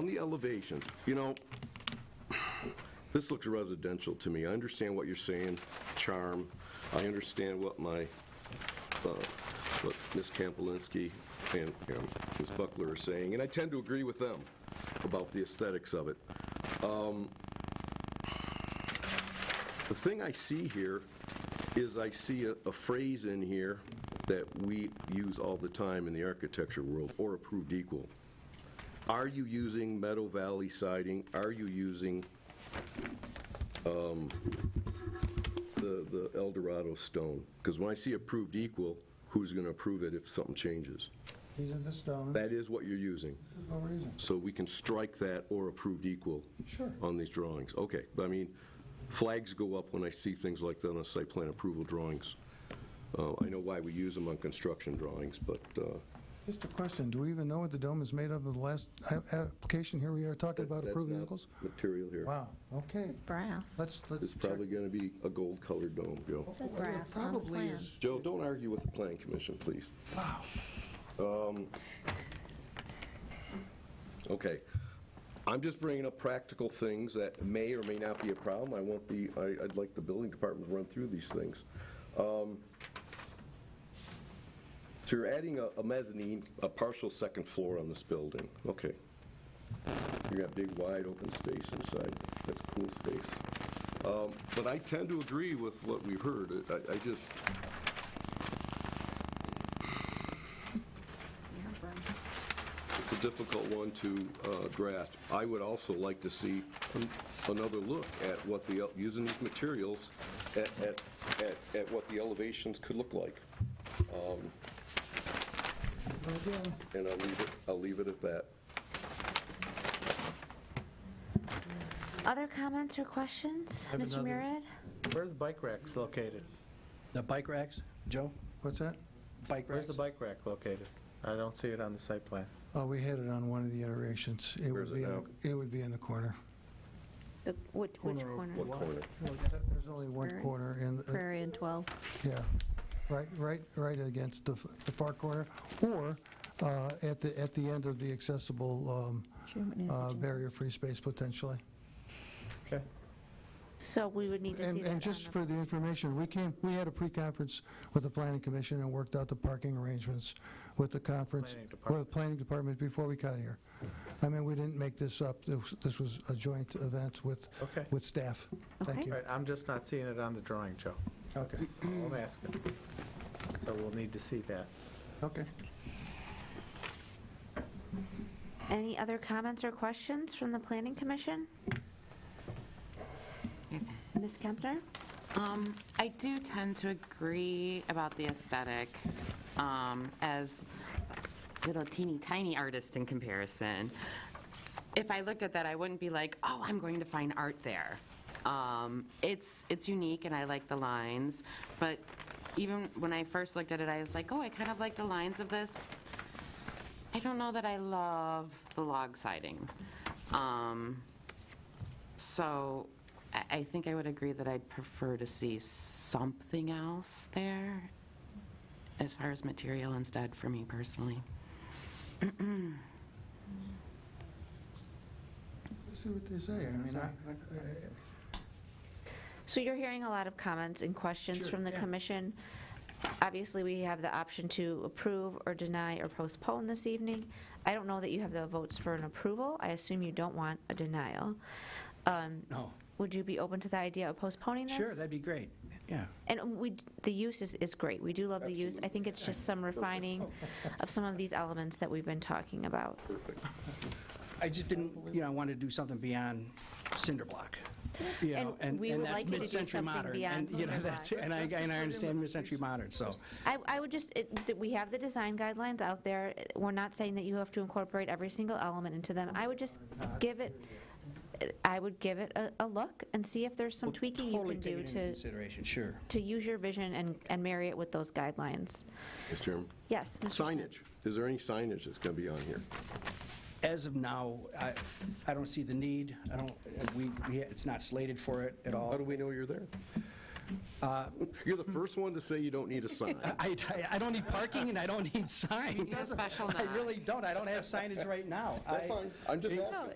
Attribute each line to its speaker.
Speaker 1: the elevations, you know, this looks residential to me. I understand what you're saying, charm. I understand what my, uh, what Ms. Kampolinski and and Ms. Buckler are saying, and I tend to agree with them about the aesthetics of it. Um, The thing I see here is I see a- a phrase in here that we use all the time in the architecture world, or approved equal. Are you using Meadow Valley siding? Are you using um, the the El Dorado stone? Because when I see approved equal, who's going to approve it if something changes?
Speaker 2: These are the stones. This
Speaker 1: That is what you're using.
Speaker 2: is no reason.
Speaker 1: So we can strike that or approved equal
Speaker 2: Sure.
Speaker 1: on these drawings. Okay, but I mean, flags go up when I see things like that on site plan approval drawings. Uh, I know why we use them on construction drawings, but uh,
Speaker 2: Just a question, do we even know what the dome is made of in the last a- application here we are talking about
Speaker 1: that's
Speaker 2: approved
Speaker 1: not
Speaker 2: vehicles?
Speaker 1: material here.
Speaker 2: Wow, okay,
Speaker 3: Brass.
Speaker 2: let's, let's
Speaker 1: It's
Speaker 2: check.
Speaker 1: probably going to be a gold-colored dome, Joe.
Speaker 3: said
Speaker 2: Well, it
Speaker 3: brass um, on the
Speaker 2: Probably
Speaker 3: plan.
Speaker 2: is,
Speaker 1: Joe, don't argue with the Plan Commission, please. Um,
Speaker 2: wow.
Speaker 1: Okay. I'm just bringing up practical things that may or may not be a problem. I want the, I- I'd like the building department to run through these things. Um, So you're adding a- a mezzanine, a partial second floor on this building. Okay. You got big, wide, open space inside. That's cool space. Um, But I tend to agree with what we've heard. I- I just, It's a difficult one to uh, grasp. I would also like to see an- another look at what the, el- using these materials, at, at, at- at what the elevations could look like.
Speaker 2: But again,
Speaker 1: And I'll leave it, I'll leave it at that.
Speaker 3: Other comments or questions?
Speaker 4: have
Speaker 3: Mr.
Speaker 4: another-
Speaker 3: Murad?
Speaker 4: Where are the bike racks located?
Speaker 5: The bike racks, Joe?
Speaker 2: What's that?
Speaker 5: Bike
Speaker 4: Where's
Speaker 5: racks?
Speaker 4: the bike rack located? I don't see it on the site plan.
Speaker 2: Oh, we had it on one of the iterations. It
Speaker 1: Where
Speaker 2: would
Speaker 1: is it
Speaker 2: be, in
Speaker 1: now?
Speaker 2: the- it would be in the corner.
Speaker 3: The- Which which
Speaker 1: What
Speaker 3: corner?
Speaker 1: corner?
Speaker 2: There's only one
Speaker 3: Prairie?
Speaker 2: corner and, uh,
Speaker 3: Prairie and 12.
Speaker 2: yeah, right, right, right against the f- the far corner, or uh, at the, at the end of the accessible um, uh, barrier-free space potentially.
Speaker 4: Okay.
Speaker 3: So we would need to see
Speaker 2: And,
Speaker 3: that on
Speaker 2: and just
Speaker 3: the-
Speaker 2: for the information, we came, we had a pre-conference with the planning commission and worked out the parking arrangements with the conference,
Speaker 4: Planning department.
Speaker 2: with the planning department before we got here. I mean, we didn't make this up, This was- this was a joint event with,
Speaker 4: Okay.
Speaker 2: with staff. Thank
Speaker 3: Okay.
Speaker 4: All
Speaker 2: you.
Speaker 4: right, I'm just not seeing it on the drawing, Joe.
Speaker 2: Okay,
Speaker 4: So I'm asking. So we'll need to see that.
Speaker 2: okay.
Speaker 3: Any other comments or questions from the Planning Commission? Ms. Kempner?
Speaker 6: Um, I do tend to agree about the aesthetic um, as a little teeny tiny artist in comparison. If I looked at that, I wouldn't be like, oh, I'm going to find art there. Um, It's, it's unique and I like the lines, but even when I first looked at it, I was like, oh, I kind of like the lines of this, I don't know that I love the log siding. Um, So I- I think I would agree that I'd prefer to see something else there as far as material instead for me personally.
Speaker 2: See what they say, I mean, I,
Speaker 3: So you're hearing a lot of comments and questions
Speaker 2: Sure,
Speaker 3: from the
Speaker 2: yeah.
Speaker 3: commission. Obviously, we have the option to approve or deny or postpone this evening. I don't know that you have the votes for an approval. I assume you don't want a denial. Um,
Speaker 5: No.
Speaker 3: Would you be open to the idea of postponing this?
Speaker 5: Sure, that'd be great. Yeah.
Speaker 3: And we, d- the use is, is great. We do love the use. I think it's just some refining of some of these elements that we've been talking about.
Speaker 5: I just didn't, you know, I wanted to do something beyond cinder block. You
Speaker 3: And
Speaker 5: know, and
Speaker 3: we would
Speaker 5: and that's
Speaker 3: like you to do
Speaker 5: mid-century
Speaker 3: something
Speaker 5: modern,
Speaker 3: beyond
Speaker 5: and, you know,
Speaker 3: cinder
Speaker 5: that's- And I, and I understand mid-century modern, so.
Speaker 3: I, I would just, it, that we have the design guidelines out there. We're not saying that you have to incorporate every single element into them. I would just give it, I would give it a, a look and see if there's some
Speaker 5: we'll
Speaker 3: tweaking you
Speaker 5: totally
Speaker 3: can
Speaker 5: take
Speaker 3: do
Speaker 5: it into
Speaker 3: to,
Speaker 5: Consideration, sure.
Speaker 3: to use your vision and, and marry it with those guidelines.
Speaker 1: Mr. Chairman?
Speaker 3: Yes, Mr. Smith.
Speaker 1: Signage. Is there any signage that's going to be on here?
Speaker 5: As of now, I, I don't see the need. I don't, we, we- it's not slated for it at
Speaker 1: How do
Speaker 5: all.
Speaker 1: we know you're there? You're the first one to say you don't need a sign.
Speaker 5: I, I- I don't need parking and I don't need sign.
Speaker 6: A special
Speaker 5: I
Speaker 6: nod.
Speaker 5: really don't. I don't have signage right now.
Speaker 1: That's
Speaker 5: I-
Speaker 1: fine. I'm just asking.